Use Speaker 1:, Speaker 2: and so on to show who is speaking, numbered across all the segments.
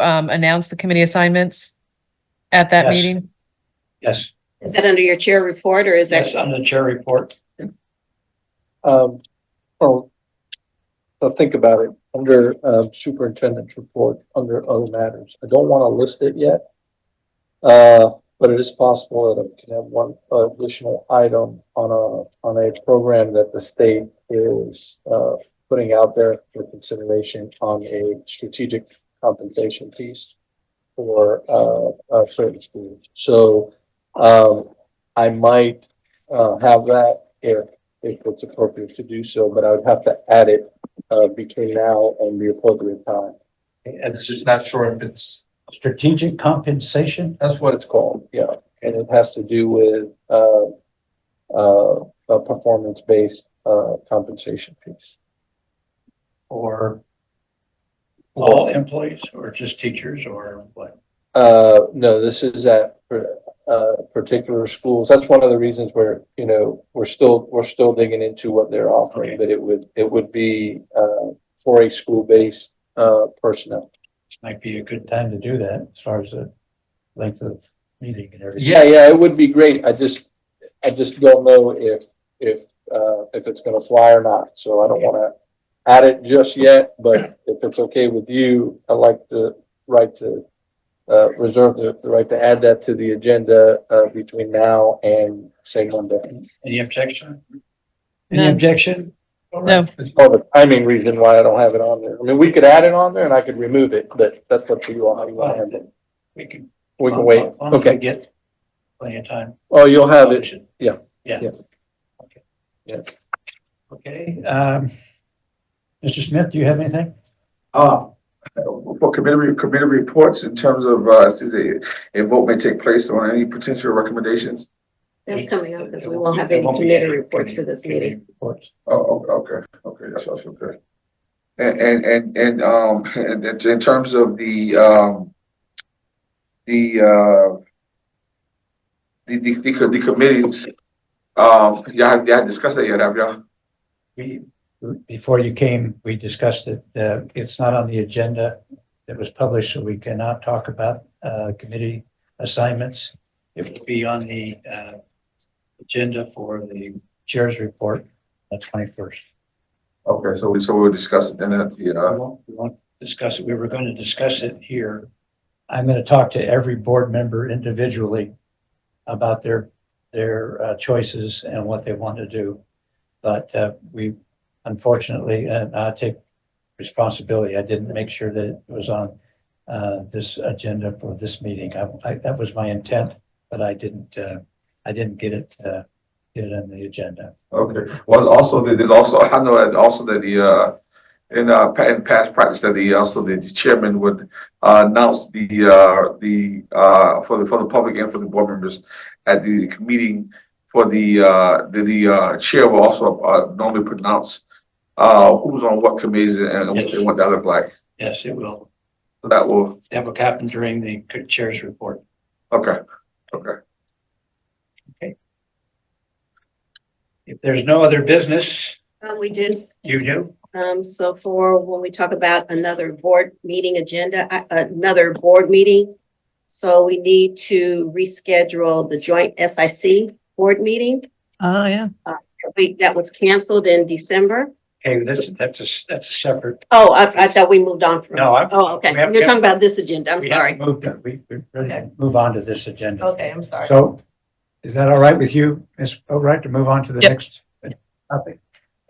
Speaker 1: um, announce the committee assignments at that
Speaker 2: Yes.
Speaker 1: meeting?
Speaker 2: Yes,
Speaker 3: Is that under your chair report or is that?
Speaker 2: yes, on the chair report.
Speaker 4: Um, well, so think about it, under um, superintendent's report, under other matters, I don't want to list it yet. Uh, but it is possible that I can have one additional item on a, on a program that the state is, uh, putting out there for consideration on a strategic compensation piece for, uh, uh, certain schools. So, um, I might, uh, have that if if it's appropriate to do so, but I would have to add it, uh, between now and the appropriate time.
Speaker 2: And
Speaker 5: It's just not sure if it's,
Speaker 2: strategic compensation,
Speaker 5: that's
Speaker 4: What
Speaker 5: what
Speaker 4: it's called, yeah, and it has to do with, uh, uh, a performance-based, uh, compensation piece.
Speaker 2: or all employees, or just teachers, or what?
Speaker 4: Uh, no, this is at, uh, particular schools. That's one of the reasons where, you know, we're still, we're still digging into what they're
Speaker 2: Okay.
Speaker 4: offering, but it would, it would be, uh, for a school-based, uh, personnel.
Speaker 2: This Might be a good time to do that, as far as the length of meeting and everything.
Speaker 4: Yeah, yeah, it would be great. I just, I just don't know if, if, uh, if it's gonna fly or not, so I don't wanna add it just yet, but if it's okay with you, I'd like the right to, uh, reserve the, the right to add that to the agenda, uh, between now and say Monday.
Speaker 2: Any objection?
Speaker 1: No.
Speaker 2: Any objection?
Speaker 1: No,
Speaker 5: it's
Speaker 4: Oh, the timing reason why I don't have it on there. I mean, we could add it on there and I could remove it, but that's up to you all. how you wanna handle it.
Speaker 2: We can.
Speaker 4: We can wait.
Speaker 2: As long as we
Speaker 4: Okay.
Speaker 2: Get plenty of time.
Speaker 4: Oh, you'll have it. yeah,
Speaker 2: Yeah.
Speaker 4: yeah.
Speaker 2: Okay.
Speaker 4: Yeah.
Speaker 2: Okay, um, Mr. Smith, do you have anything?
Speaker 6: Uh, for committee, committee reports in terms of, uh, since a, a vote may take place on any potential recommendations?
Speaker 3: That's coming up because we won't have any committee reports for this meeting.
Speaker 2: Committee Reports.
Speaker 6: Oh, o- okay, okay, that's also good. And, and, and, and, um, and in in terms of the, um, the, uh, the, the, the co- the committees, um, y'all, y'all discussed that yet, have y'all?
Speaker 2: We, before you came, we discussed it, uh, it's not on the agenda that was published, so we cannot talk about, uh, committee assignments. It will be on the, uh, agenda for the chair's report, the twenty-first.
Speaker 6: Okay, so we, so we'll discuss it then, uh,
Speaker 2: We
Speaker 6: yeah,
Speaker 2: won't, we won't discuss it. We were going to discuss it here. I'm going to talk to every board member individually about their, their uh, choices and what they want to do. But uh, we unfortunately, and I take responsibility, I didn't make sure that it was on uh, this agenda for this meeting. I, I- that was my intent, but I didn't, uh, I didn't get it, uh, get it on the agenda.
Speaker 6: okay. Well, also, there- there's also, I know that also that the, uh, in uh pa- in past practice that the also the chairman would uh, announce the uh the uh for the for the public and for the board members at the meeting for the uh the the uh chair will also uh normally pronounce uh who's on what committees and and what they want that look like.
Speaker 2: Yes, it will.
Speaker 6: So that will,
Speaker 2: That will happen during the chair's report.
Speaker 6: okay, okay.
Speaker 2: If there's no other business,
Speaker 3: Um, we did,
Speaker 2: you do?
Speaker 3: um, so for when we talk about another board meeting agenda, uh, another board meeting. So we need to reschedule the joint SIC board meeting.
Speaker 1: oh, yeah.
Speaker 3: We, that was canceled in December.
Speaker 2: Okay, that's, that's a, that's a separate,
Speaker 3: Oh, I, I thought we moved on from.
Speaker 2: No, I-
Speaker 3: Oh, okay.
Speaker 2: we have-
Speaker 3: You're talking about this agenda. I'm
Speaker 2: we haven't
Speaker 3: sorry.
Speaker 2: moved, it. we, we ready to
Speaker 3: Okay.
Speaker 2: move on to this agenda.
Speaker 3: Okay, I'm sorry.
Speaker 2: So, is that all right with you, Ms. Boatright, to move on to the
Speaker 1: Yep.
Speaker 2: next topic?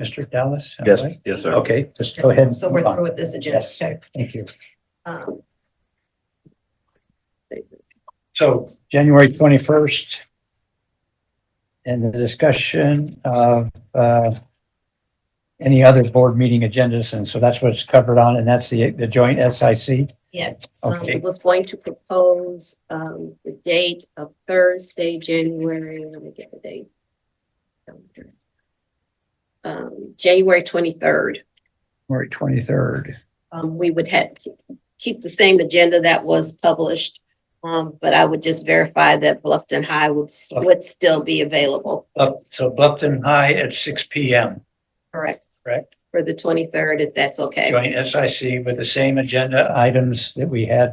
Speaker 2: Mr. Dallas? am I
Speaker 5: Yes,
Speaker 2: right?
Speaker 5: yes, sir.
Speaker 2: Okay, just go ahead. and
Speaker 3: So we're
Speaker 2: move on.
Speaker 3: through with this agenda.
Speaker 2: Yes,
Speaker 3: Okay.
Speaker 2: thank you.
Speaker 3: Um,
Speaker 2: So, January twenty-first. And the discussion of, uh, any other board meeting agendas, and so that's what's covered on, and that's the, the joint SIC.
Speaker 3: Yes, um,
Speaker 2: Okay.
Speaker 3: I was going to propose, um, the date of Thursday, January, let me get the date. Um, January twenty-third,
Speaker 2: January twenty-third.
Speaker 3: um, we would have, keep the same agenda that was published. Um, but I would just verify that Bluffton High would, s- would still be available,
Speaker 2: So Bluffton High at six P M,
Speaker 3: correct,
Speaker 2: correct?
Speaker 3: for the twenty-third, if that's okay.
Speaker 2: Joint SIC with the same agenda items that we had